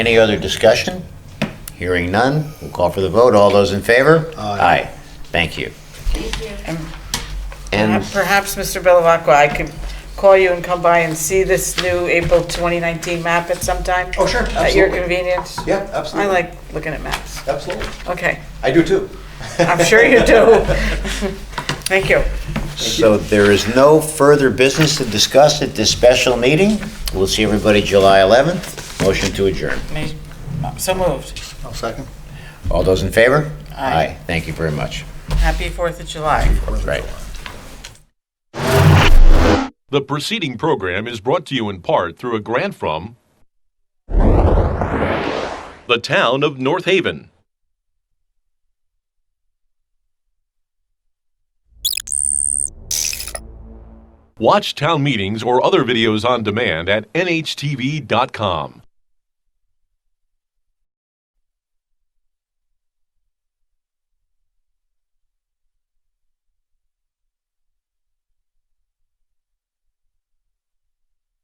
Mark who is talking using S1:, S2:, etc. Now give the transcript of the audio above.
S1: Any other discussion? Hearing none, we'll call for the vote. All those in favor?
S2: Aye.
S1: Thank you.
S3: And
S1: And
S3: perhaps- Perhaps, Mr. Belavaca, I could call you and come by and see this new April 2019 map at some time?
S2: Oh, sure,
S3: At your
S2: absolutely.
S3: convenience?
S2: Yeah,
S3: I
S2: absolutely.
S3: like looking at maps.
S2: Absolutely.
S3: Okay,
S2: I do too.
S3: I'm sure you do. Thank you.
S1: so there is no further business to discuss at this special meeting. We'll see everybody July 11th. Motion to adjourn.
S3: Me- So moved.
S2: I'll second.
S1: All those in favor?
S3: Aye.
S1: Thank you very much.
S3: Happy 4th of July.
S1: Right.
S4: The preceding program is brought to you in part through a grant from the town of North Haven. Watch town meetings or other videos on demand at nhtv.com.